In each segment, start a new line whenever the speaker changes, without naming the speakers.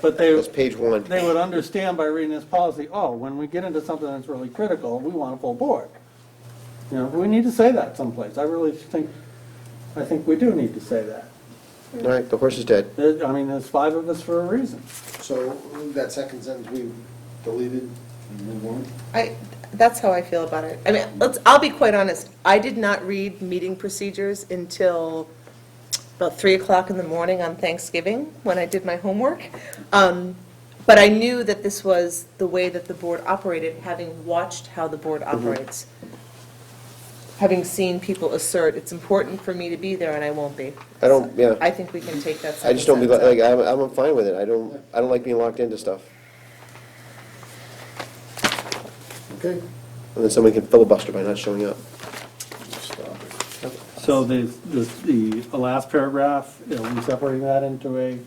But they,
That's page one.
they would understand by reading this policy, oh, when we get into something that's really critical, we want a full board. You know, we need to say that someplace. I really think, I think we do need to say that.
All right, the horse is dead.
There- I mean, there's five of us for a reason.
So that second sentence we deleted and moved on?
I, that's how I feel about it. I mean, let's, I'll be quite honest, I did not read meeting procedures until about 3 o'clock in the morning on Thanksgiving, when I did my homework. Um, But I knew that this was the way that the board operated, having watched how the board
Mm-hmm.
operates, having seen people assert, it's important for me to be there and I won't be.
I don't- yeah.
I think we can take that
I just don't be,
sentence out.
like, I'm, I'm fine with it. I don't, I don't like being locked into stuff.
Okay.
And then somebody can filibuster by not showing up.
Stop it.
So the, the, the last paragraph, you know, we separating that into a,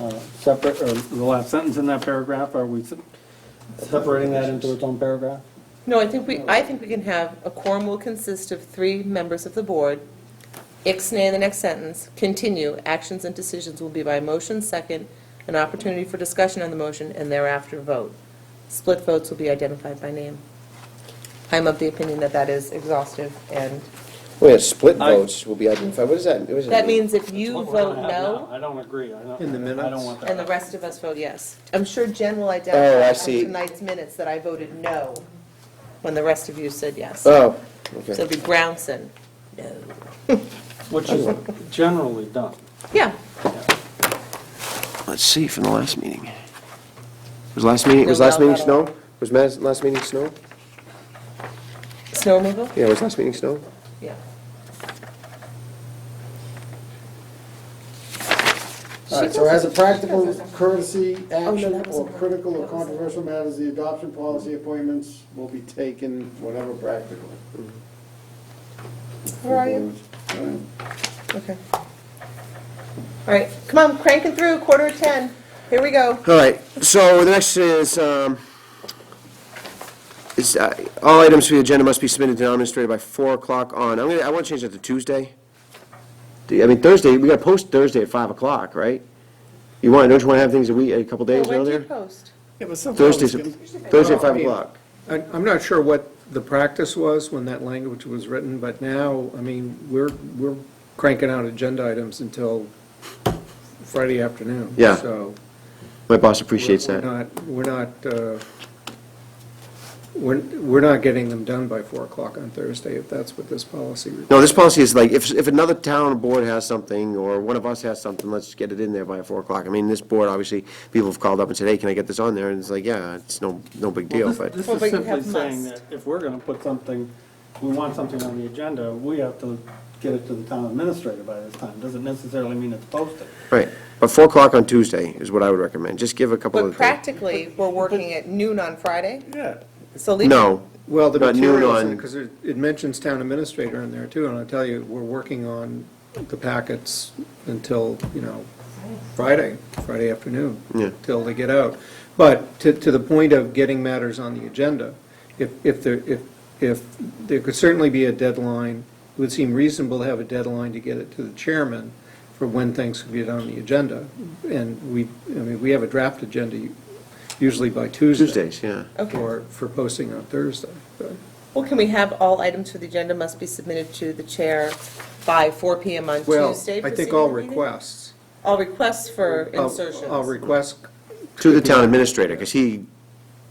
uh, separate, or the last sentence in that paragraph, are we se- separating that into its own paragraph?
No, I think we, I think we can have, a quorum will consist of three members of the board. Ixnay in the next sentence, continue, actions and decisions will be by motion second, an opportunity for discussion on the motion, and thereafter vote. Split votes will be identified by name. I'm of the opinion that that is exhaustive, and
Oh yeah, split
I-
votes will be identified. What does that, what does
that
mean?
means if you vote no,
I don't agree. I don't,
In the
I don't want that.
and the rest of us vote yes. I'm sure Jen will
Oh, I
identify on
see.
tonight's minutes that I voted no, when the rest of you said yes. So
Oh, okay.
it'll be Brownson, no.
Which is generally done.
Yeah,
Let's see from the last meeting. Was last meeting, was
No,
last
no,
meeting
no, no.
snow? Was Matt's last meeting snow?
snow removal?
Yeah, was last meeting snow?
Yeah.
All right, so as a practical courtesy action or critical or controversial matters, the adoption policy appointments will be taken, whatever practical.
Where are you?
All right.
Okay. All right, come on, cranking through, quarter to 10. Here we go.
All right, so the next is, um, is, uh, all items for the agenda must be submitted to the administrator by 4 o'clock on, I'm gonna, I want to change that to Tuesday. Do- I mean, Thursday, we got to post Thursday at 5 o'clock, right? You want, don't you want to have things a week, a couple days
When do you
earlier?
post?
Yeah, but somehow it's
Thursdays,
gonna-
Thursday at 5 o'clock.
I- I'm not sure what the practice was when that language was written, but now, I mean, we're, we're cranking out agenda items until Friday afternoon.
Yeah.
So
My boss appreciates
we're
that.
not, we're not, uh, we're, we're not getting them done by 4 o'clock on Thursday, if that's what this policy requires.
No, this policy is like, if, if another town board has something, or one of us has something, let's get it in there by 4 o'clock. I mean, this board, obviously, people have called up and said, hey, can I get this on there? And it's like, yeah, it's no, no big deal,
Well,
but.
This this
Well,
is
but you
simply
have
saying that
must.
if we're gonna put something, we want something on the agenda, we have to get it to the town administrator by this time. Doesn't necessarily mean it's posted.
Right, but 4 o'clock on Tuesday is what I would recommend, just give a couple
But
of days.
practically, we're working at noon on Friday,
Yeah.
so leave.
No,
Well, the
About noon
materials,
on-
because it it mentions town administrator in there too, and I'll tell you, we're working on the packets until, you know, Friday, Friday afternoon.
Yeah.
Till they get out. But to, to the point of getting matters on the agenda, if, if there, if, if, there could certainly be a deadline, it would seem reasonable to have a deadline to get it to the chairman for when things could get on the agenda. And we, I mean, we have a draft agenda usually by Tuesday.
Tuesdays, yeah.
Okay.
For, for posting on Thursday, but.
Well, can we have all items for the agenda must be submitted to the chair by 4 PM on
Well,
Tuesday?
I think
preceding
all
the meeting?
requests.
All requests for
all-
insertions.
All requests,
To the town administrator, because he,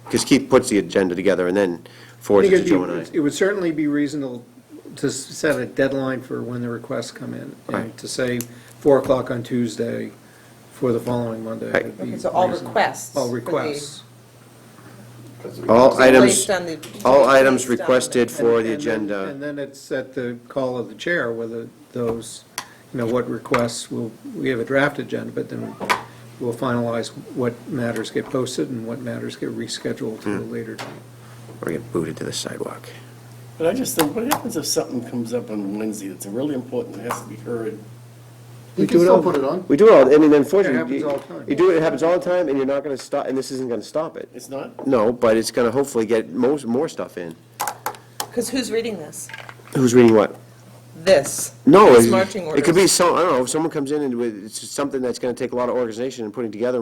because Keith puts the agenda together and then
I
forwards
think
it to
it'd
Joe and
be-
I.
it would certainly be reasonable to s- set a deadline for when the requests come in.
Right.
And to say 4 o'clock on Tuesday for the following Monday
Right.
would be
Okay, so all
reasonable.
requests.
All
for the-
requests.
All items,
Placed on the-
all
placed
items
on the-
requested for
And-
the
and then-
agenda.
And then it's at the call of the chair whether those, you know, what requests will, we have a draft agenda, but then we'll finalize what matters get posted and what matters get rescheduled to a
Hmm.
later date.
Or get booted to the sidewalk.
But I just think, what happens if something comes up on Wednesday that's really important and has to be heard?
You can still put it on.
We do it all, I mean, unfortunately,
It happens all the
you
time.
you do it, it happens all the time, and you're not going to stop, and this isn't going to stop it.
It's not?
No, but it's going to hopefully get most, more stuff in.
Because who's reading this?
Who's reading what?
This.
No,
These
it
marching
it could be
orders.
some, I don't know, if someone comes in and with, it's something that's going to take a lot of organization and putting together